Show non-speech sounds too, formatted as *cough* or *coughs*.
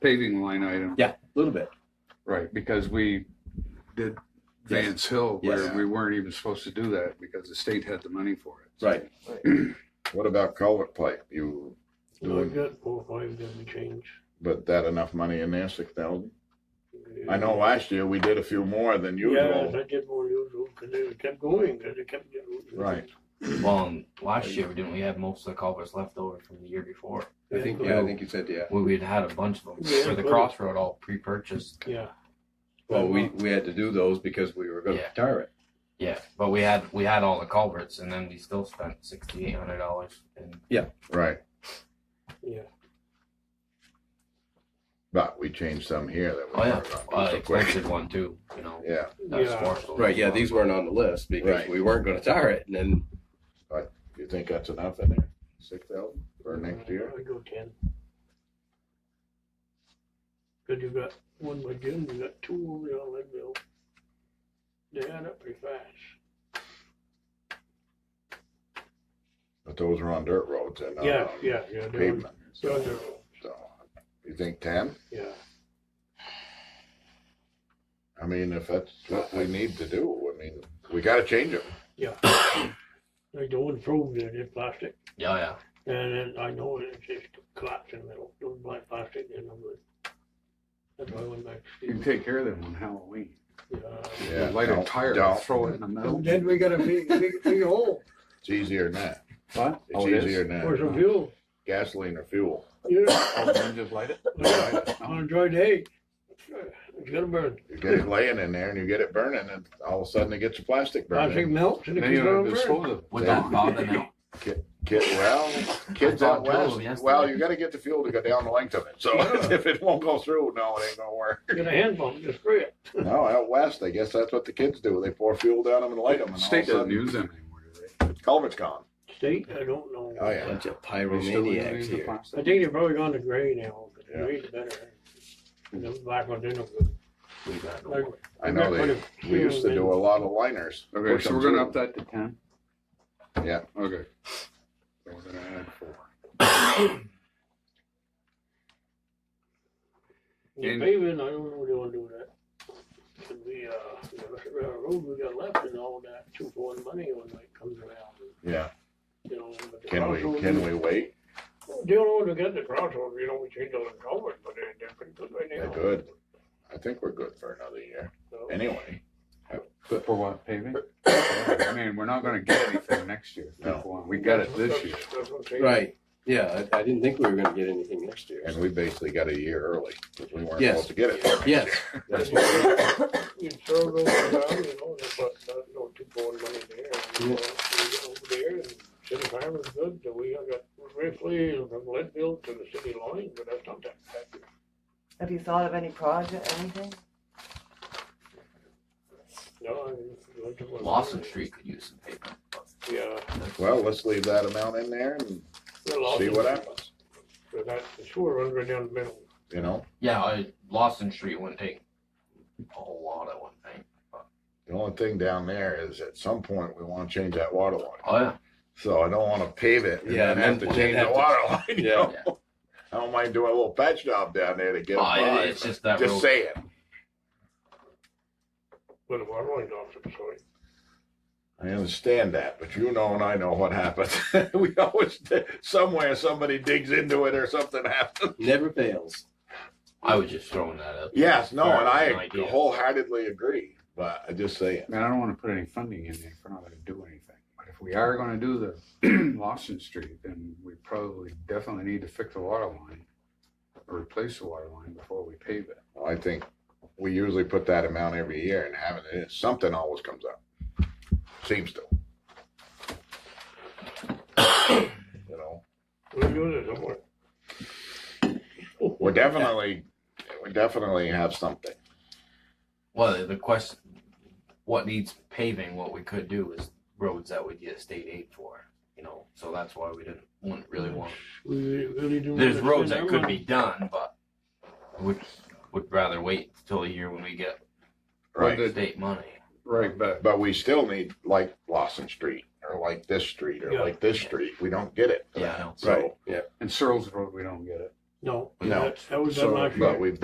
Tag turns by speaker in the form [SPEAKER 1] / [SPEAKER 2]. [SPEAKER 1] paving line item,
[SPEAKER 2] Yeah, a little bit.
[SPEAKER 1] right, because we did Vance Hill where
[SPEAKER 2] Yes.
[SPEAKER 1] we weren't even supposed to do that because the state had the money for it.
[SPEAKER 2] Right.
[SPEAKER 3] What about culvert pipe? You
[SPEAKER 4] So I
[SPEAKER 3] doing,
[SPEAKER 4] got four, or five, then we change.
[SPEAKER 3] but that enough money in there, six thousand? I know last year we did a few more than
[SPEAKER 4] Yes,
[SPEAKER 3] usual.
[SPEAKER 4] I did more usual, cause it kept going, cause it kept getting.
[SPEAKER 3] Right.
[SPEAKER 5] Well, and last year, didn't we have most of the culverts left over from the year before?
[SPEAKER 2] I think, yeah, I think you said, yeah.
[SPEAKER 5] We, we'd had a bunch of them
[SPEAKER 4] Yeah,
[SPEAKER 5] for the
[SPEAKER 4] but-
[SPEAKER 5] crossroad all pre-purchased.
[SPEAKER 4] Yeah.
[SPEAKER 2] Well, we, we had to do those because we were gonna
[SPEAKER 5] Yeah.
[SPEAKER 2] retire it.
[SPEAKER 5] Yeah, but we had, we had all the culverts and then we still spent sixty-eight hundred dollars and
[SPEAKER 3] Right,
[SPEAKER 4] Yeah,
[SPEAKER 3] but we changed some here that we
[SPEAKER 5] Oh, yeah.
[SPEAKER 3] weren't gonna
[SPEAKER 5] uh,
[SPEAKER 3] do so quick.
[SPEAKER 5] expensive one too, you know.
[SPEAKER 3] Yeah,
[SPEAKER 5] that was
[SPEAKER 4] Yeah.
[SPEAKER 5] Marshall.
[SPEAKER 2] Right, yeah, these weren't on the list because
[SPEAKER 3] Right.
[SPEAKER 2] we weren't gonna tire it and then,
[SPEAKER 3] you think that's enough in there? Six thousand for next year?
[SPEAKER 4] I go ten. Cause you got one by Jim, you got two over there on Leadville. They add up pretty fast.
[SPEAKER 3] But those are on dirt roads and not
[SPEAKER 4] Yeah,
[SPEAKER 3] on
[SPEAKER 4] yeah, yeah. they're on-
[SPEAKER 3] pavement.
[SPEAKER 4] they're on
[SPEAKER 3] So,
[SPEAKER 4] their own.
[SPEAKER 3] you think ten?
[SPEAKER 4] Yeah,
[SPEAKER 3] I mean, if that's what we need to do, I mean, we gotta change it.
[SPEAKER 4] like the one froze there, they're plastic,
[SPEAKER 5] Yeah, yeah.
[SPEAKER 4] and then I know it, it's just collapsed in the middle, those black plastic, and I'm good. That's why I went back
[SPEAKER 1] You can
[SPEAKER 4] to Steve.
[SPEAKER 1] take care of them on Halloween.
[SPEAKER 4] Yeah.
[SPEAKER 3] Yeah,
[SPEAKER 1] Light a
[SPEAKER 3] don't-
[SPEAKER 1] tire,
[SPEAKER 3] don't.
[SPEAKER 1] throw it in the
[SPEAKER 6] And
[SPEAKER 1] middle.
[SPEAKER 6] then we got a big, big, big hole.
[SPEAKER 3] It's easier than that.
[SPEAKER 1] What?
[SPEAKER 3] It's
[SPEAKER 1] Oh, it is?
[SPEAKER 3] easier than
[SPEAKER 4] Or
[SPEAKER 3] that.
[SPEAKER 4] some fuel,
[SPEAKER 3] Gasoline or fuel. *coughs*
[SPEAKER 4] yeah,
[SPEAKER 1] Oh, then just light it?
[SPEAKER 4] Yeah. on a dry day, it's gonna burn.
[SPEAKER 3] You get it laying in there and you get it burning and all of a sudden it gets a plastic
[SPEAKER 4] Plastic
[SPEAKER 3] burn.
[SPEAKER 4] melts and it
[SPEAKER 1] Then
[SPEAKER 4] keeps
[SPEAKER 1] you
[SPEAKER 4] on
[SPEAKER 1] don't
[SPEAKER 4] burning.
[SPEAKER 1] dispose of it.
[SPEAKER 5] Would that bother them?
[SPEAKER 3] Kid, well, kids out
[SPEAKER 5] I thought
[SPEAKER 3] west,
[SPEAKER 5] Joe yesterday-
[SPEAKER 3] well, you gotta get the fuel to go down the length of it. So *laughs* if it won't go through, no, it ain't gonna work.
[SPEAKER 4] Get a hand pump, just spray it.
[SPEAKER 3] No, out west, I guess that's what the kids do. They pour fuel down them and light them and all of
[SPEAKER 1] State
[SPEAKER 3] a
[SPEAKER 1] doesn't
[SPEAKER 3] sudden
[SPEAKER 1] use them anymore, do they?
[SPEAKER 3] culvert's gone.
[SPEAKER 4] State, I don't know.
[SPEAKER 3] Oh, yeah.
[SPEAKER 2] bunch of
[SPEAKER 1] They still
[SPEAKER 2] pyromaniacs
[SPEAKER 1] use the
[SPEAKER 2] here.
[SPEAKER 4] I
[SPEAKER 1] plastic?
[SPEAKER 4] think they're probably gone to gray now, but
[SPEAKER 3] Yeah.
[SPEAKER 4] gray's better. And the black ones, they're no good.
[SPEAKER 5] We got
[SPEAKER 4] Like,
[SPEAKER 5] no-
[SPEAKER 3] I
[SPEAKER 4] I've
[SPEAKER 3] know
[SPEAKER 4] got quite
[SPEAKER 3] they,
[SPEAKER 4] a
[SPEAKER 3] we
[SPEAKER 4] few
[SPEAKER 3] used to
[SPEAKER 4] in-
[SPEAKER 3] do a lot of liners.
[SPEAKER 1] Okay,
[SPEAKER 3] Push
[SPEAKER 1] so
[SPEAKER 3] them
[SPEAKER 1] we're gonna up
[SPEAKER 3] through.
[SPEAKER 1] that to ten?
[SPEAKER 3] Yeah.
[SPEAKER 1] Okay. So we're gonna add four.
[SPEAKER 4] The paving, I don't know they wanna do that. Could be, uh, the road we got left and all that two for one money when it comes around,
[SPEAKER 3] Yeah.
[SPEAKER 4] you know. but the
[SPEAKER 3] Can we,
[SPEAKER 4] crossroads-
[SPEAKER 3] can we wait?
[SPEAKER 4] They don't want to get the crossroads, you know, we change all the culverts, but they're, they're pretty good right
[SPEAKER 3] They're
[SPEAKER 4] now.
[SPEAKER 3] good. I think we're good for another year.
[SPEAKER 4] So-
[SPEAKER 3] Anyway,
[SPEAKER 1] For what, *coughs* paving? I mean, we're not gonna get anything next year.
[SPEAKER 3] No.
[SPEAKER 1] We got it this year.
[SPEAKER 4] That's what I'm saying.
[SPEAKER 2] Right, yeah, I, I didn't think we were gonna get anything next year.
[SPEAKER 3] and we basically got a year early because we weren't
[SPEAKER 2] Yes.
[SPEAKER 3] supposed to get it.
[SPEAKER 2] Yes,
[SPEAKER 4] You throw those around, you know, there's about, uh, no two for one money there, and, you know, we get over there, and city farm is good, so we got briefly from Leadville to the city line, but that's not that bad.
[SPEAKER 7] Have you thought of any project, anything?
[SPEAKER 4] No, I mean. it's good to-
[SPEAKER 5] Lawson Street could use some pavement.
[SPEAKER 4] Yeah.
[SPEAKER 3] Well, let's leave that amount in there and
[SPEAKER 4] they're Lawson.
[SPEAKER 3] see what happens,
[SPEAKER 4] But that, the sewer runs right down the middle.
[SPEAKER 3] you know?
[SPEAKER 5] Yeah, I, Lawson Street wouldn't take a whole lot, I wouldn't think.
[SPEAKER 3] The only thing down there is at some point we want to change that water line.
[SPEAKER 5] Oh, yeah.
[SPEAKER 3] So I don't want to pave it and
[SPEAKER 2] Yeah,
[SPEAKER 3] then
[SPEAKER 2] and
[SPEAKER 3] have to
[SPEAKER 2] then
[SPEAKER 3] change
[SPEAKER 2] have
[SPEAKER 3] that
[SPEAKER 2] to-
[SPEAKER 3] water line. you
[SPEAKER 2] Yeah.
[SPEAKER 3] know? I don't mind doing a little patch job down there to get it
[SPEAKER 5] Oh, it-
[SPEAKER 3] by.
[SPEAKER 5] it's
[SPEAKER 3] but
[SPEAKER 5] just that
[SPEAKER 3] Just
[SPEAKER 5] road.
[SPEAKER 3] saying.
[SPEAKER 4] But the water line's off to the side.
[SPEAKER 3] I understand that, but you know and I know what happens. *laughs* we always, somewhere somebody digs into it or something happens.
[SPEAKER 2] never fails.
[SPEAKER 5] I was just throwing that up.
[SPEAKER 3] Yes, no, and
[SPEAKER 5] An
[SPEAKER 3] I
[SPEAKER 5] idea.
[SPEAKER 3] wholeheartedly agree, but I just saying.
[SPEAKER 1] And I don't wanna put any funding in there if we're not gonna do anything. But if we are gonna do the *clears throat* Lawson Street, then we probably definitely need to fix the water line or replace the water line before we pave it.
[SPEAKER 3] I think we usually put that amount every year and having it, something always comes up. Seems to. You know,
[SPEAKER 4] We're doing it somewhere.
[SPEAKER 3] we're definitely, we definitely have something.
[SPEAKER 5] Well, the- the question, what needs paving, what we could do is roads that we get state aid for, you know, so that's why we didn't, wouldn't really want.
[SPEAKER 4] We really do.
[SPEAKER 5] There's roads that could be done, but would, would rather wait till a year when we get
[SPEAKER 1] Right.
[SPEAKER 3] Right,
[SPEAKER 5] state money.
[SPEAKER 1] Right, but
[SPEAKER 3] but we still need like Lawson Street or like this street or
[SPEAKER 4] Yeah.
[SPEAKER 3] like this street. We don't get it.
[SPEAKER 5] Yeah, I know.
[SPEAKER 3] So,
[SPEAKER 2] Yeah,
[SPEAKER 1] in Searles Road, we don't get it.
[SPEAKER 4] No,
[SPEAKER 3] No.
[SPEAKER 4] that, that was
[SPEAKER 3] So,
[SPEAKER 4] unlucky.
[SPEAKER 3] but we've